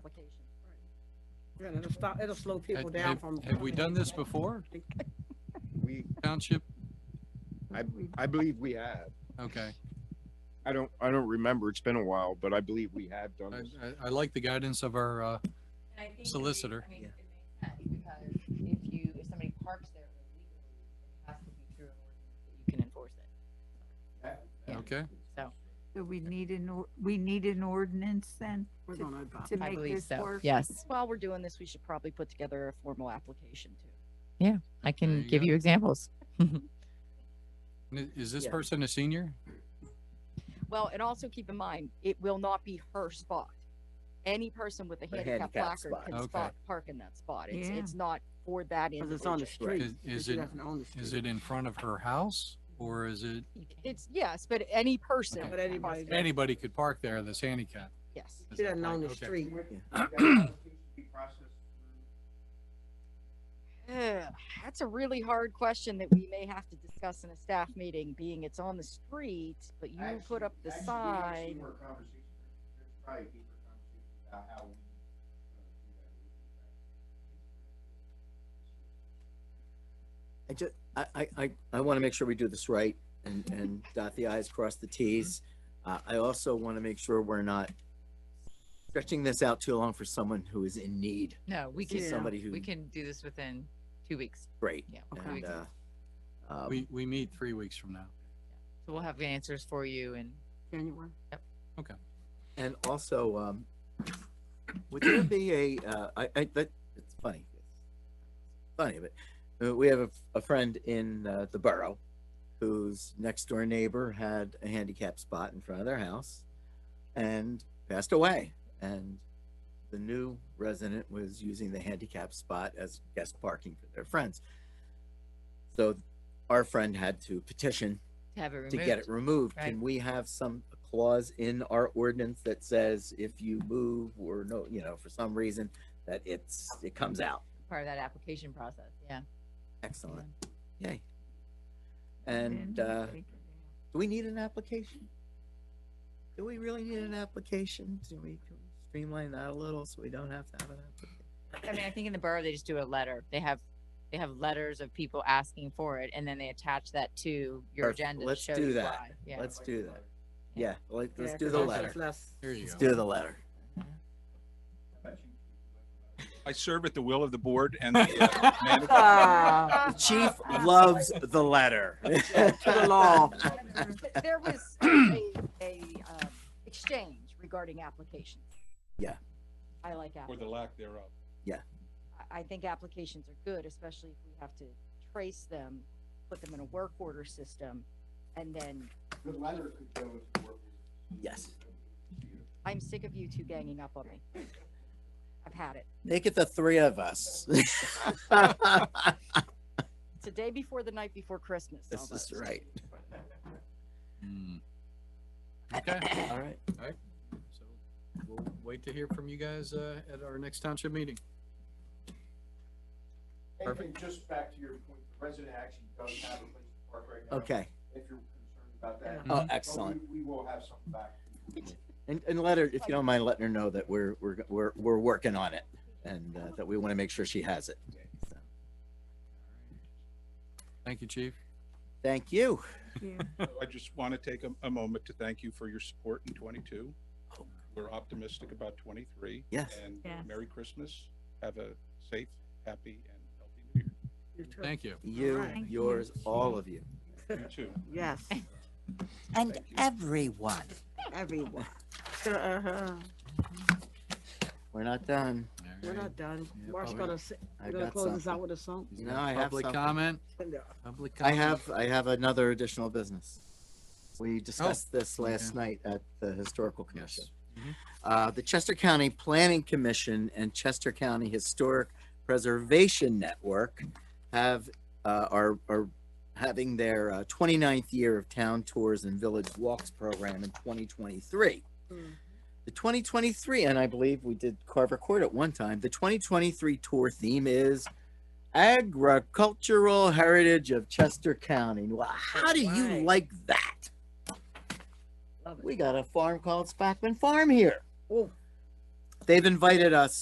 application. Yeah, and it'll stop, it'll slow people Have- down have- from. Have we done this before, We, township? I, I believe we have. Okay, I don't, I don't remember. It's been a while, but I believe we have done I, this. I, I like the guidance of our, uh, solicitor. I mean, it makes sense because if you, if somebody parks there illegally, it has to be through an ordinance that you can enforce it. Yeah. okay, So So we need an, or- we need an ordinance then We're gonna adopt to it. I make believe this so, work? yes. While we're doing this, we should probably put together a formal application too. I can you give go. you examples. N- is this Yeah. person a senior? Well, and also keep in mind, it will not be her spot. Any person with a handicap handicap placard spot. can Okay. spot, park in that spot. It's, Yeah. it's not for that Cause it's individual. on the street. Is- is She it- doesn't own the Is street. it in front of her house or is it, It's, yes, but any person. Okay. with But a anybody handicap- that- anybody could park there that's handicapped? Yes. Is She that doesn't own right? the Okay. street. Ugh, That's a really hard question that we may have to discuss in a staff meeting, being it's on the street, but you put up the sign. uh, I just, I, I, I, I want to make sure we do this right and, and dot the i's, cross the t's. Mm-hmm. Uh, I also want to make sure we're not stretching this out too long for someone who is in need. No, we This is can, Somebody who, we can do this within two weeks. great. Yeah. Okay. two And, weeks. uh, um, We, we meet three weeks from now. So we'll have the answers for you and January. And also, um, would there be a, uh, I, I, that, it's funny. Funny, but uh, we have a, a friend in, uh, the borough whose next door neighbor had a handicap spot in front of their house and passed away. And the new resident was using the handicap spot as guest parking for their friends. So our friend had to petition have it removed. to get it removed, right. can we have some clause in our ordinance that says if you move or no, you know, for some reason, that it's, it comes out? Part of that application process, yeah. Excellent, yay. And, Then uh, take it do we need an application? Do we really need an application? Do we can we streamline that a little so we don't have to have an application? I mean, I think in the borough, they just do a letter. They have, they have letters of people asking for it and then they attach that to your Perfect. agenda to Let's show do you that. why. Yeah. Let's do that. Yeah. Yeah, let, let's Yeah, do 'cause the it's letter. less- There you Let's go. do the letter. I serve at the will of the board and the, uh, man- Ah, The Chief loves the letter. To the law. Th- There was a, a, um, exchange regarding applications. Yeah. I like app, or the lack thereof. I, I think applications are good, especially if we have to trace them, put them in a work order system. And then Yes. I'm sick of you two ganging up on me. I've had it. Make it the three of us. It's the day before the night before Christmas. This almost. is right. Hmm. Okay, All right. so we'll wait to hear from you guys, uh, at our next township meeting. And, and just back to your point, the resident actually does have a place to park right now. Okay. If you're concerned about that. Oh, But excellent. We we will have something back. And, and let her, if you don't mind, letting her know that we're, we're, we're, we're working on it and uh, that we want to make sure she has it. So, Thank you, chief. Thank you. down. I just want to take a, a moment to thank you for your support in twenty-two. We're optimistic about twenty-three. Yes. And Yes. Merry Christmas. Have a safe, happy and healthy new year. Thank you. You, Alright. yours, all of you. You too. Yes, And Thank you. everyone. everyone. Uh-huh. We're not done. All We're right. not done. Yeah, Mark's public- gonna, s- I've gonna got close us out something. with a song. Is No, there I have Public something. comment? No. Public I comment? have, I have another additional business. We discussed this last okay. night at the Historical Commission. Yes. Mhm. Uh, the Chester County Planning Commission and Chester County Historic Preservation Network have, uh, are, are having their uh, 29th year of town tours and village walks program in 2023. Mm. The 2023, and I believe we did Carver Court at one time, the 2023 tour theme is Agricultural Heritage of Chester County. Well, how do you Right. like that? Love it. We got a farm called Spackman Farm here. Oh, they've invited us